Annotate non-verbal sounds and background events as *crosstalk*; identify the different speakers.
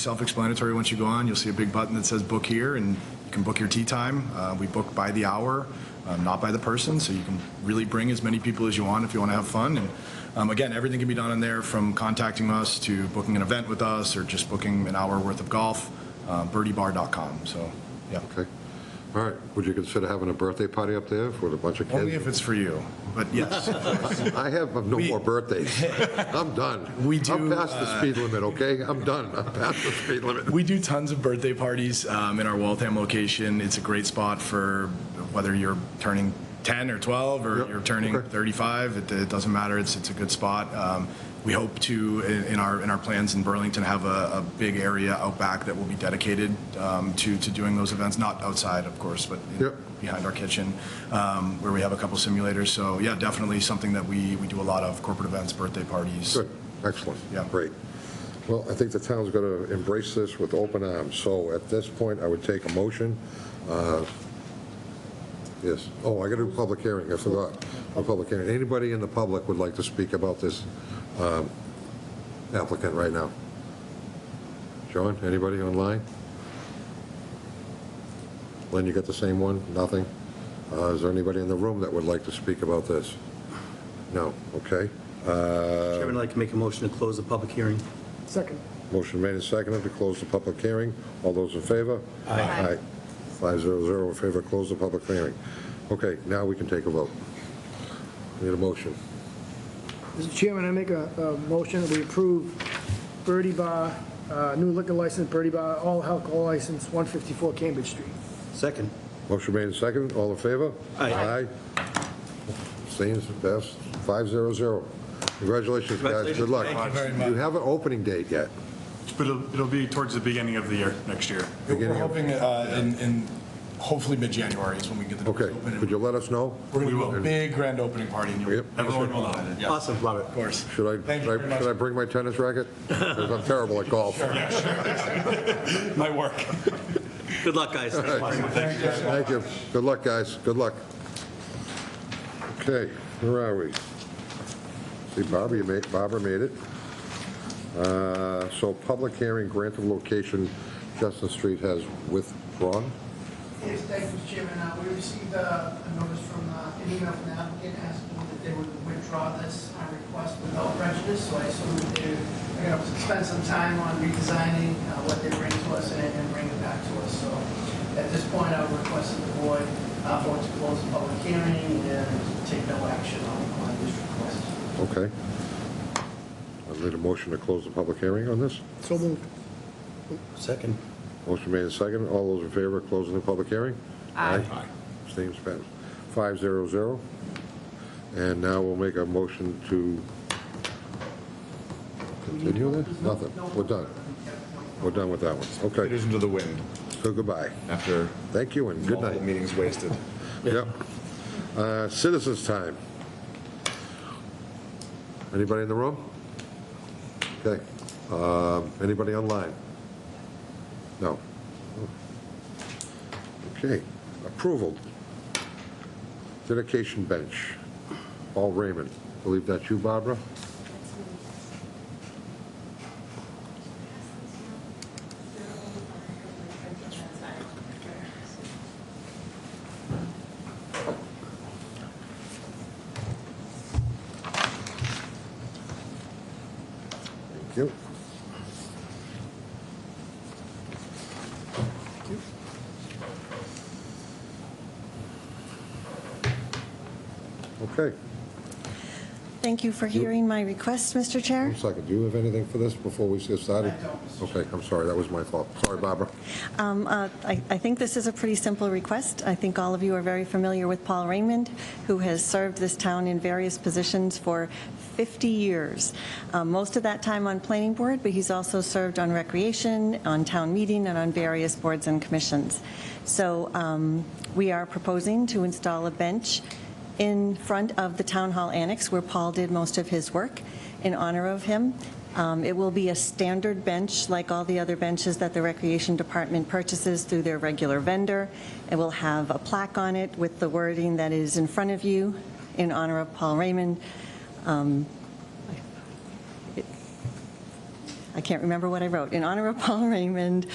Speaker 1: Self-explanatory, once you go on, you'll see a big button that says book here, and you can book your tea time. Uh, We book by the hour, um, not by the person, so you can really bring as many people as you want if you want to have fun. And um, again, everything can be done in there, from contacting us to booking an event with us, or just booking an hour worth of golf, uh, birdiebar.com, so, yeah.
Speaker 2: Okay. All right. Would you consider having a birthday party up there for a bunch of
Speaker 1: Only if
Speaker 2: kids?
Speaker 1: it's for you, but yes.
Speaker 2: I have no more
Speaker 1: *laughs*
Speaker 2: birthdays. I'm done.
Speaker 1: We do, uh,
Speaker 2: I'm past the speed limit, okay? I'm done. I'm past the speed limit.
Speaker 1: We do tons of birthday parties um, in our Waltham location. It's a great spot for whether you're turning 10 or 12 or
Speaker 2: Yep,
Speaker 1: you're turning
Speaker 2: okay.
Speaker 1: 35. It, it doesn't matter. It's it's a good spot. Um, we hope to in, in our in our plans in Burlington have a, a big area out back that will be dedicated um, to to doing those events. Not outside, of course, but in-
Speaker 2: Yep.
Speaker 1: behind our kitchen um, where we have a couple simulators. So yeah, definitely something that we we do a lot of corporate events, birthday parties.
Speaker 2: Good. Excellent.
Speaker 1: Yeah.
Speaker 2: Great. Well, I think the town's going to embrace this with open arms. So at this point, I would take a motion. uh, Yes. Oh, I got to do public hearing. I forgot. A public hearing. Anybody in the public would like to speak about this um, applicant right now? John, anybody online? Lynn, you got the same one? Nothing? Uh, Is there anybody in the room that would like to speak about this? No? Okay. Uh,
Speaker 3: Chairman, I'd like to make a motion to close the public hearing.
Speaker 4: Second.
Speaker 2: Motion made and seconded to close the public hearing. All those in favor? Aye. Five zero zero in favor, close the public hearing. Okay, now we can take a vote. Need a motion.
Speaker 4: Mr. Chairman, I make a, a motion that we approve Birdie Bar, uh, new liquor license, Birdie Bar, all alcohol license, 154 Cambridge Street.
Speaker 3: Second.
Speaker 2: Motion made and seconded, all in favor?
Speaker 3: Aye.
Speaker 2: Aye. Abstains, passed, five zero zero. Congratulations, guys, good luck.
Speaker 5: Thank you very
Speaker 2: You haven't opening date yet.
Speaker 5: But it'll, it'll be towards the beginning of the year, next year.
Speaker 1: We're
Speaker 2: Beginning of-
Speaker 1: hoping uh, in, in hopefully mid-January is when we get the doors
Speaker 2: Okay,
Speaker 1: open.
Speaker 2: could you let us know?
Speaker 1: We're going to do a big grand opening party. and you'll-
Speaker 2: Yep.
Speaker 5: Everyone will know.
Speaker 1: Yeah, Of
Speaker 3: Awesome, love it.
Speaker 1: course.
Speaker 2: Should I,
Speaker 1: Thank you
Speaker 2: should
Speaker 1: very
Speaker 2: I-
Speaker 1: much.
Speaker 2: should I bring my tennis racket? 'Cause I'm terrible at golf.
Speaker 5: My work.
Speaker 3: Good luck, guys.
Speaker 2: Thank you. Good luck, guys. Good luck. Okay, where are we? See, Barbara you made, Barbara made it. Uh, So public hearing, grant of location, Justin Street has withdrawn.
Speaker 6: Yes, thank you, Mr. Chairman. Uh, We received uh, a notice from, uh, an email from the applicant asking that they would withdraw this uh, request without prejudice, so I assume that they're going to spend some time on redesigning uh, what they bring to us and and bring it back to us. So at this point, I would request that the board uh, vote to close the public hearing and take no action on on this request.
Speaker 2: Okay. I need a motion to close the public hearing on this.
Speaker 4: So moved.
Speaker 3: Second.
Speaker 2: Motion made and seconded. All those in favor of closing the public hearing? Aye. Abstains, passed. Five zero zero. And now we'll make a motion to continue this? Nothing. We're done. We're done with that one. Okay,
Speaker 7: Leaders into the wind
Speaker 2: so goodbye.
Speaker 7: after
Speaker 2: Thank you and good
Speaker 7: multiple
Speaker 2: night.
Speaker 7: meetings wasted.
Speaker 2: *laughs* Yep. Uh, Citizens' time. Anybody in the room? Okay. Um, Anybody online? No. Okay. Approval. Dedication bench. Paul Raymond. Believe that's you, Barbara? Thank you. Okay.
Speaker 8: Thank you for hearing my request, Mr. Chair.
Speaker 2: One second. Do you have anything for this before we get started? Okay, I'm sorry. That was my fault. Sorry, Barbara.
Speaker 8: Um, uh, I I think this is a pretty simple request. I think all of you are very familiar with Paul Raymond, who has served this town in various positions for 50 years. Um, Most of that time on planning board, but he's also served on recreation, on town meeting, and on various boards and commissions. So um, we are proposing to install a bench in front of the Town Hall Annex, where Paul did most of his work, in honor of him. Um, It will be a standard bench, like all the other benches that the Recreation Department purchases through their regular vendor. It will have a plaque on it with the wording that is in front of you, in honor of Paul Raymond. Um, I can't remember what I wrote, in honor of Paul Raymond,